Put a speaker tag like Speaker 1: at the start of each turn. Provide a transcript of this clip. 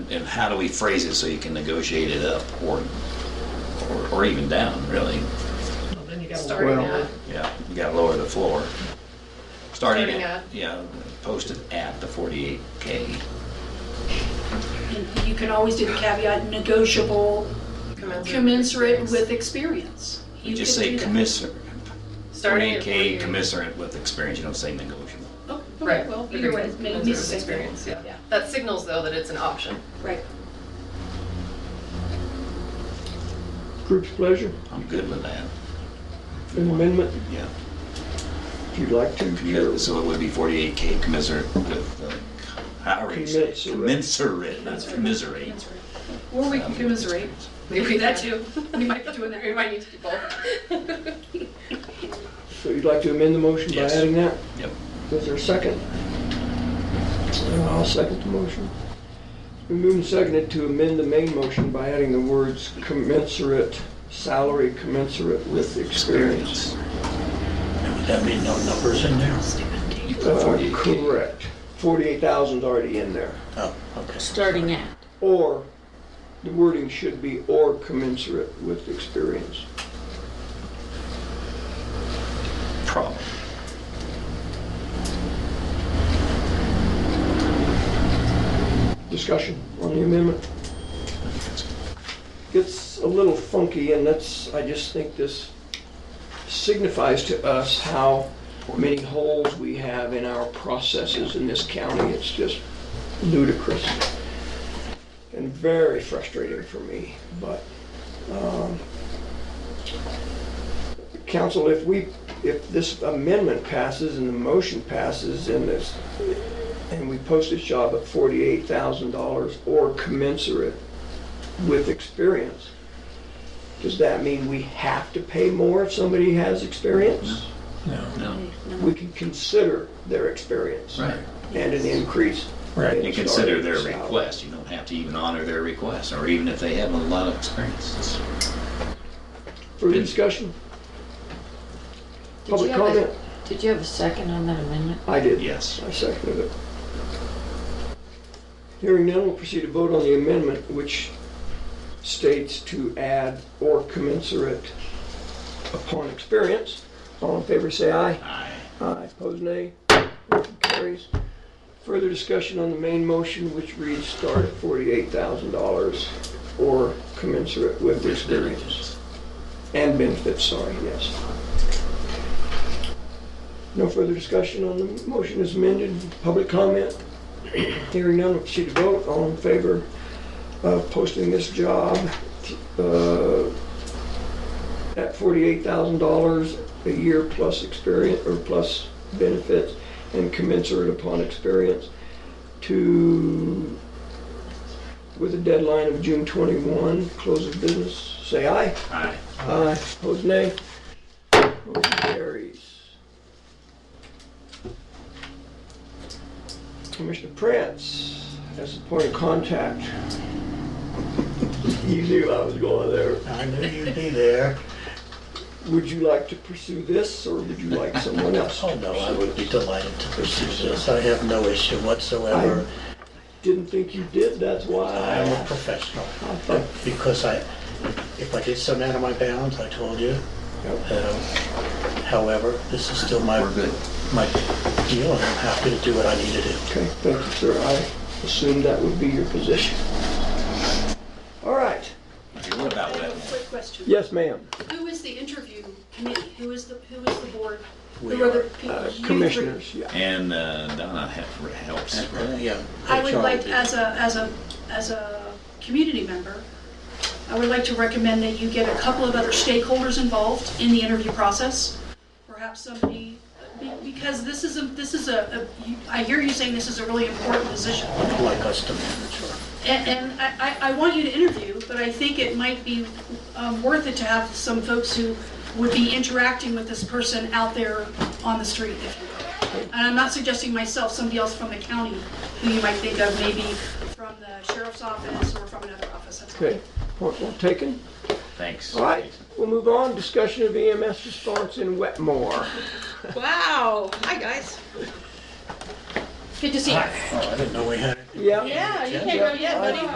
Speaker 1: and how do we phrase it so you can negotiate it up or, or, or even down, really?
Speaker 2: Well, Then you gotta
Speaker 3: Starting
Speaker 2: lower
Speaker 3: at,
Speaker 2: it.
Speaker 1: Yeah, you gotta lower the floor. Starting
Speaker 2: Starting
Speaker 1: at,
Speaker 2: at-
Speaker 1: yeah, posted at the 48K.
Speaker 4: And You can always do the caveat negotiable, commensurate with experience.
Speaker 1: You
Speaker 4: can
Speaker 1: just say
Speaker 4: do that.
Speaker 1: commiserate,
Speaker 2: Starting at
Speaker 1: 48K
Speaker 2: 48.
Speaker 1: commensurate with experience, you don't say negotiable.
Speaker 4: Oh,
Speaker 2: Right.
Speaker 4: okay, well, either way, maybe
Speaker 2: Commensurate
Speaker 4: it's
Speaker 2: Experience, yeah.
Speaker 4: Yeah.
Speaker 2: That signals though that it's an option.
Speaker 4: Right.
Speaker 3: group's pleasure,
Speaker 1: I'm good with that,
Speaker 3: an amendment,
Speaker 1: yeah.
Speaker 3: if you'd like to.
Speaker 1: Yeah, So it would be 48K commensurate with, uh, however you say, it. commensurate, not commiserate.
Speaker 4: Or we
Speaker 1: Um,
Speaker 4: can commiserate.
Speaker 2: Maybe
Speaker 4: That too. We might be doing
Speaker 2: We
Speaker 4: that.
Speaker 2: might need to do both.
Speaker 3: So you'd like to amend the motion by
Speaker 1: Yes.
Speaker 3: adding that?
Speaker 1: Yep.
Speaker 3: Is there a second? I'll second the motion. We move and seconded to amend the main motion by adding the words commensurate, salary commensurate with experience.
Speaker 1: Experience.
Speaker 5: Would that be no numbers in there?
Speaker 1: You put
Speaker 3: Uh,
Speaker 1: 48K.
Speaker 3: Correct. 48,000's already in there.
Speaker 5: Oh, okay.
Speaker 6: starting at.
Speaker 3: Or, the wording should be or commensurate with experience.
Speaker 1: Problem.
Speaker 3: Discussion on the amendment. It's a little funky, and that's, I just think this signifies to us how many holes we have in our processes in this county. It's just ludicrous and very frustrating for me, but, um, council, if we, if this amendment passes and the motion passes and this, and we post this job at forty-eight thousand dollars or commensurate with experience, does that mean we have to pay more if somebody has experience?
Speaker 1: Mm-hmm. No,
Speaker 3: We can consider their experience.
Speaker 1: right.
Speaker 3: And an increase.
Speaker 5: Right.
Speaker 1: And consider their request, you don't have to even honor their request, or even if they have a lot of experience.
Speaker 3: Further discussion?
Speaker 6: Did you
Speaker 3: Public
Speaker 6: have
Speaker 3: comment?
Speaker 6: a- Did you have a second on that amendment?
Speaker 3: I did.
Speaker 1: Yes.
Speaker 3: I seconded it. Hearing none, we'll proceed to vote on the amendment, which states to add or commensurate upon experience. All in favor, say aye.
Speaker 1: Aye.
Speaker 3: Aye, opposed, nay. Motion carries. Further discussion on the main motion, which reads start at $48,000 or commensurate with experience. And benefits, sorry, yes. No further discussion on the motion is amended. Public comment? Hearing none, we'll proceed to vote. All in favor of posting this job uh, at $48,000 a year plus experience, or plus benefits and commensurate upon experience to, with a deadline of June 21, close of business, say aye.
Speaker 1: Aye.
Speaker 3: Aye, opposed nay. Motion carries. Commissioner Prince as the point of contact. You knew I was going there.
Speaker 5: I knew you'd be there.
Speaker 3: Would you like to pursue this, or would you like someone else? to
Speaker 5: Oh, no, I
Speaker 3: pursue
Speaker 5: would be
Speaker 3: this?
Speaker 5: delighted to pursue this. I have no issue whatsoever.
Speaker 3: Didn't think you did, that's why.
Speaker 5: I am a
Speaker 3: I-
Speaker 5: professional.
Speaker 3: I thought-
Speaker 5: Because I, if I did something out of my bounds, I told you.
Speaker 3: Yep.
Speaker 5: Um, However, this is still my,
Speaker 1: We're good.
Speaker 5: my deal, and I'm happy to do what I need to do.
Speaker 3: Okay, thank you, sir. I assumed that would be your position. All right.
Speaker 1: Okay, What about
Speaker 4: I
Speaker 1: that?
Speaker 4: have a quick question.
Speaker 3: Yes, ma'am.
Speaker 4: Who is the interview committee? Who is the, who is the board?
Speaker 5: We
Speaker 4: Who are
Speaker 5: are,
Speaker 4: the people?
Speaker 3: Uh,
Speaker 4: you three?
Speaker 3: Commissioners, yeah.
Speaker 1: And uh, Donna he- helps.
Speaker 5: Uh, Yeah.
Speaker 4: I would
Speaker 5: HR
Speaker 4: like,
Speaker 5: do.
Speaker 4: as a, as a, as a community member, I would like to recommend that you get a couple of other stakeholders involved in the interview process. Perhaps somebody, be- because this is a, this is a, a- you- I hear you saying this is a really important position.
Speaker 5: I'd like us to manage her.
Speaker 4: And, and I, I I want you to interview, but I think it might be um, worth it to have some folks who would be interacting with this person out there on the street, if you will. And I'm not suggesting myself, somebody else from the county who you might think of, maybe from the sheriff's office or from another office. That's all.
Speaker 3: Okay, point well taken.
Speaker 1: Thanks.
Speaker 3: All right, we'll move on. Discussion of EMS response in Wetmore.
Speaker 2: Wow. Hi, guys.
Speaker 6: Good to see you.
Speaker 5: Oh, I didn't know we had.
Speaker 3: Yeah?
Speaker 2: Yeah, you
Speaker 5: Yeah.
Speaker 2: can't go yet, buddy.